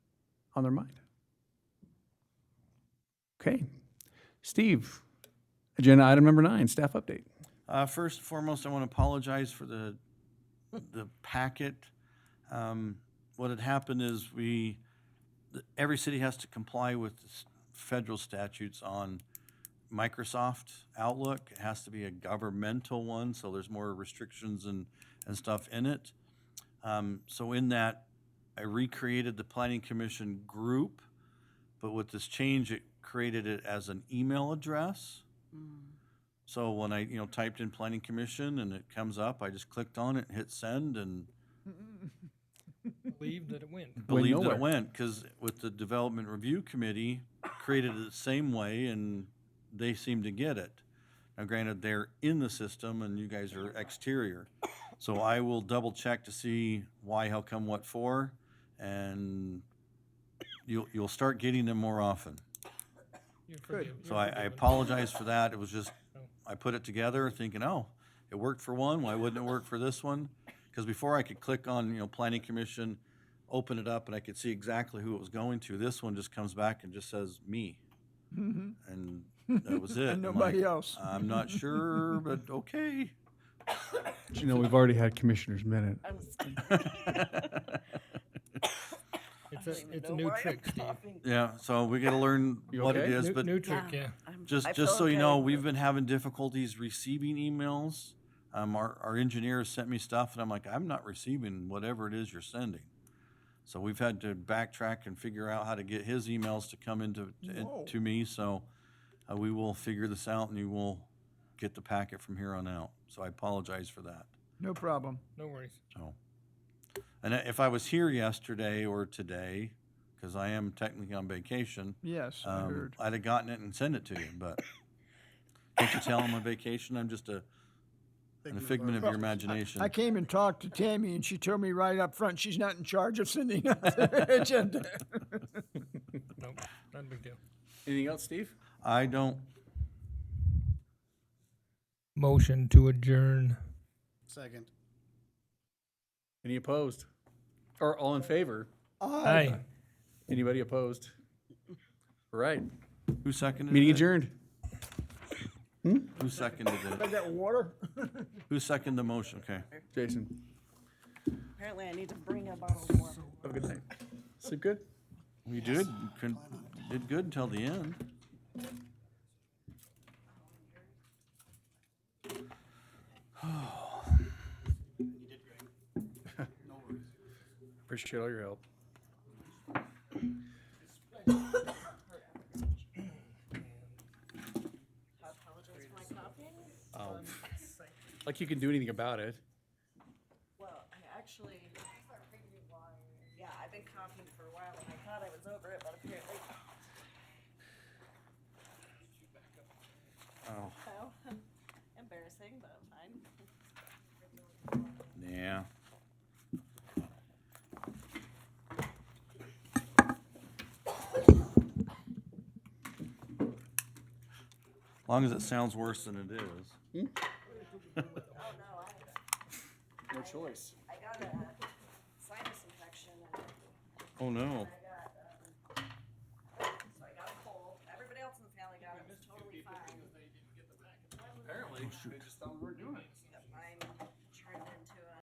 on their mind. Okay. Steve, agenda item number nine, staff update. Uh, First and foremost, I want to apologize for the, the packet. Um, What had happened is we, th- every city has to comply with the s- federal statutes on Microsoft Outlook. It has to be a governmental one, so there's more restrictions and, and stuff in it. Um, So in that, I recreated the planning commission group, but with this change, it created it as an email address. So when I, you know, typed in planning commission and it comes up, I just clicked on it, hit send and believe that it went. believed that nowhere. it went. Cause with the development review committee created it the same way and they seem to get it. Now granted, they're in the system and you guys are exterior. So I will double check to see why, how come, what for, and you'll, you'll start getting them more often. You're forgiven. So I, I apologize for that. It was just, I put it together thinking, oh, it worked for one, why wouldn't it work for this one? Because before I could click on, you know, planning commission, open it up and I could see exactly who it was going to. This one just comes back and just says me. And that was it. I'm like, Mm-hmm. nobody else. I'm not sure, but okay. You know, we've already had commissioners minute. I was It's a, it's a new trick, Steve. Yeah, so we gotta learn You what it okay? is, New, but new trick, yeah. I'm- Just, I just feel so you know, okay. we've been having difficulties receiving emails. Um, our, our engineer sent me stuff and I'm like, I'm not receiving whatever it is you're sending. So we've had to backtrack and figure out how to get his emails to come into, to- Whoa. to me, so uh, we will figure this out and you will get the packet from here on out. So I apologize for that, No problem. No worries. so. And if I was here yesterday or today, because I am technically on vacation, Yes, I um, heard. I'd have gotten it and sent it to you, but can't you tell I'm on vacation? I'm just a, a figment of your imagination. I came and talked to Tammy, and she told me right up front she's not in charge of sending out the agenda. Nope, not a big deal. Anything else, Steve? I don't, Motion to adjourn. Second. Any opposed? Or all in favor? Aye. Anybody opposed? All right. who seconded it? Meeting adjourned. Who seconded I it? got water. Who seconded the motion? Okay. Jason, Apparently, I need to bring a bottle of water. have a good night. Sleep good? We did, con- did good until the end. Appreciate all your help. Um, Like you can do anything about it. Well, I actually, yeah, I've been coughing for a while, and I thought I was over it, but apparently. Oh, So, embarrassing, but fine. yeah. Long as it sounds worse than it is. Oh, no, I, No choice. I got a sinus infection, and Oh, no. I got, um, so I got a cold. Everybody else in the family got it, it was totally fine. Apparently, they just thought we were doing it.